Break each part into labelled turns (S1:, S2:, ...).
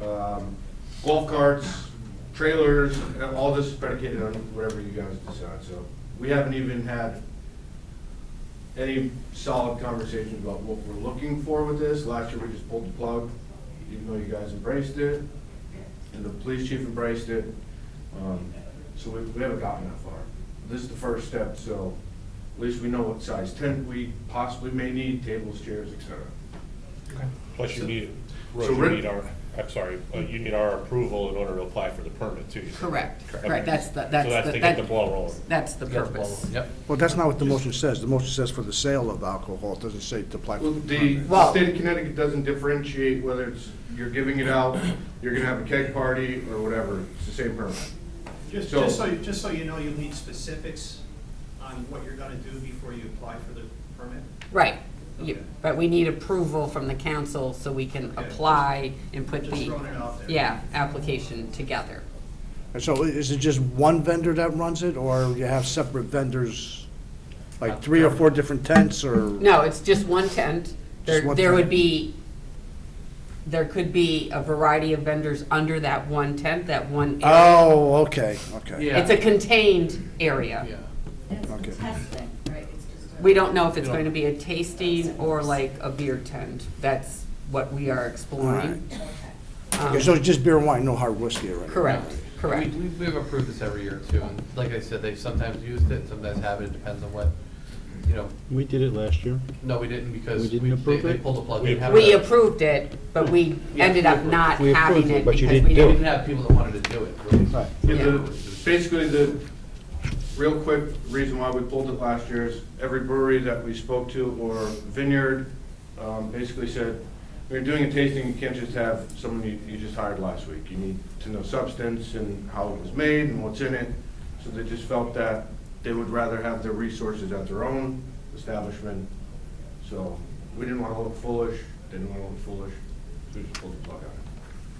S1: um, golf carts, trailers, and all this is predicated on whatever you guys decide, so. We haven't even had any solid conversations about what we're looking for with this. Last year, we just pulled the plug, even though you guys embraced it, and the police chief embraced it. Um, So we, we haven't gotten that far. This is the first step, so at least we know what size tent we possibly may need, tables, chairs, et cetera.
S2: Plus you need,
S1: so
S2: Rose, you
S1: Rick-
S2: need our, I'm sorry, uh, you need our approval in order to apply for the permit too.
S3: Correct,
S2: Correct.
S3: correct, that's the,
S2: So that's
S3: that's
S2: to
S3: the,
S2: get the
S3: that-
S2: ball rolling.
S3: that's the
S2: Get the ball
S3: purpose.
S2: rolling. Yep.
S4: Well, that's not what the motion says. The motion says for the sale of alcohol, it doesn't say to apply for
S1: Well,
S4: the
S1: the,
S4: permit.
S1: the state of Connecticut doesn't differentiate whether it's, you're giving it out, you're gonna have a keg party, or whatever, it's the same permit.
S5: Just,
S1: So-
S5: just so, just so you know, you'll need specifics on what you're gonna do before you apply for the permit.
S3: Right, You-
S5: Okay.
S3: but we need approval from the council so we can
S5: Okay, just-
S3: apply and put
S5: Just throwing it
S3: the,
S5: out there.
S3: yeah, application together.
S4: And so i- is it just one vendor that runs it, or you have separate vendors, like three or four different tents, or?
S3: No, it's just one tent. There,
S4: one
S3: there would
S4: tent.
S3: be, there could be a variety of vendors under that one tent, that one area.
S4: Oh, okay, okay.
S6: Yeah.
S3: It's a contained area.
S6: Yeah.
S7: It's
S4: Okay.
S7: testing, right? It's just a-
S3: We don't know if it's
S6: Yeah.
S3: going to be a tasting or like a beer tent. That's what we are exploring. Um,
S4: Okay, so it's just beer and wine, no hard whiskey or anything?
S3: Correct, correct.
S6: We, we- we've approved this every year too, and like I said, they've sometimes used it, sometimes haven't, it depends on what, you know,
S8: We did it last year.
S6: no, we didn't because
S8: We
S6: we,
S8: didn't
S6: they,
S8: approve
S6: they
S8: it?
S6: pulled the plug.
S2: We
S6: didn't have
S3: We
S6: the-
S3: approved it, but we ended up not
S8: We approved
S3: having
S8: it,
S3: it
S8: but
S3: because
S8: you
S3: we
S8: didn't do
S6: We
S3: didn't.
S6: didn't have people that wanted to do it, really.
S4: Right.
S1: Yeah, the-
S3: Yeah.
S1: basically, the, real quick, reason why we pulled it last year is every brewery that we spoke to or vineyard, um, basically said, we are doing a tasting, you can't just have someone you, you just hired last week. You need to know substance and how it was made and what's in it. So they just felt that they would rather have their resources at their own establishment. So we didn't want to look foolish, didn't want to look foolish, so we just pulled the plug on it.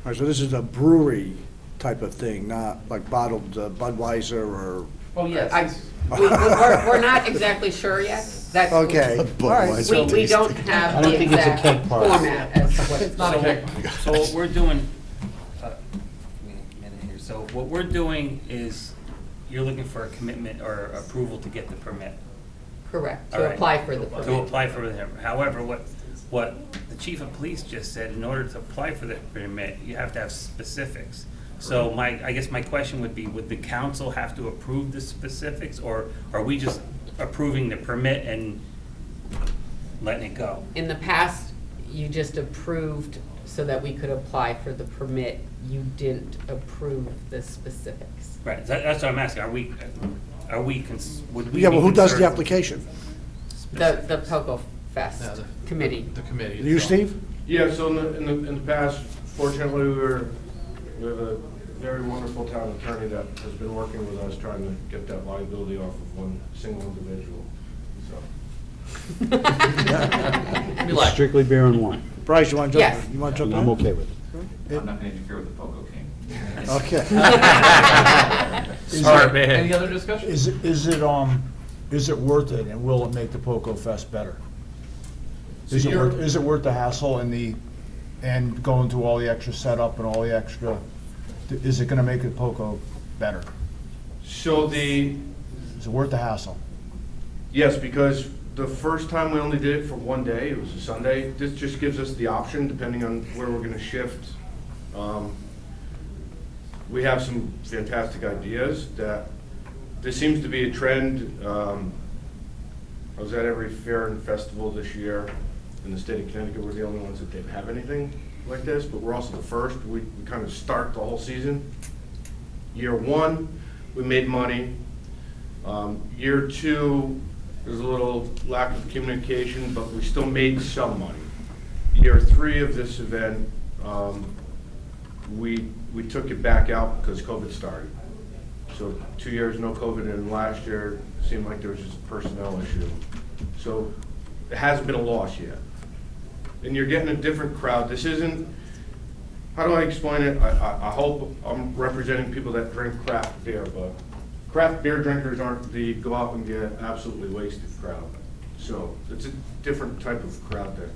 S4: All right, so this is a brewery type of thing, not like bottled uh, Budweiser or?
S6: Oh, yes.
S3: I-
S6: it's-
S3: We- We're, we're not exactly sure yet. That's.
S4: Okay.
S3: We,
S4: Budweiser.
S3: we don't
S8: I
S3: have
S8: don't
S3: the
S8: think it's a
S3: exact
S8: cake party.
S3: format as to what it's
S6: Not a
S9: So-
S6: keg.
S9: So what we're doing, uh, wait a minute here, so what we're doing is, you're looking for a commitment or approval to get the permit,
S3: Correct,
S9: All
S3: to
S9: right.
S3: apply for the
S9: to
S3: permit.
S9: apply for the, however, what, what the chief of police just said, in order to apply for the permit, you have to have specifics. So my, I guess my question would be, would the council have to approve the specifics, or are we just approving the permit and letting it go?
S3: In the past, you just approved so that we could apply for the permit. You didn't approve the specifics.
S9: Right, that, that's what I'm asking, are we, are we, cons- would we
S4: Yeah, well,
S9: be
S4: who does the
S9: concerned-
S4: application?
S3: The, the Poco
S6: No,
S3: Fest
S6: the-
S3: committee.
S6: The committee.
S4: You,
S6: itself.
S4: Steve?
S1: Yeah, so in the, in the, in the past, fortunately, we were, we have a very wonderful town attorney that has been working with us trying to get that liability off of one single individual, so.
S6: Relax.
S8: Strictly beer and wine.
S4: Bryce, you want to
S3: Yes.
S4: jump? You want to
S8: And
S4: jump
S8: I'm
S4: in?
S8: okay with it.
S10: I'm not gonna interfere with the Poco King.
S4: Okay.
S6: Sorry, man. Any other discussion?
S11: Is, it is it, um, is it worth it, and will it make the Poco Fest better? Is it worth, is it worth the hassle and the, and going through all the extra setup and all the extra, is it gonna make the Poco better?
S1: So the,
S11: Is it worth the hassle?
S1: yes, because the first time we only did it for one day, it was a Sunday, this just gives us the option, depending on where we're gonna shift. Um, We have some fantastic ideas that, this seems to be a trend, um, I was at every fair and festival this year in the state of Connecticut. We're the only ones that didn't have anything like this, but we're also the first. We, we kind of start the whole season. Year one, we made money. Um, year two, there's a little lack of communication, but we still made some money. Year three of this event, um, we, we took it back out because COVID started. So two years, no COVID, and last year seemed like there was just a personnel issue. So it hasn't been a loss yet. And you're getting a different crowd. This isn't, how do I explain it? I, I, I hope I'm representing people that drink craft beer, but craft beer drinkers aren't the go out and get absolutely wasted crowd. So it's a different type of crowd that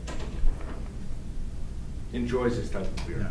S1: enjoys this type of beer.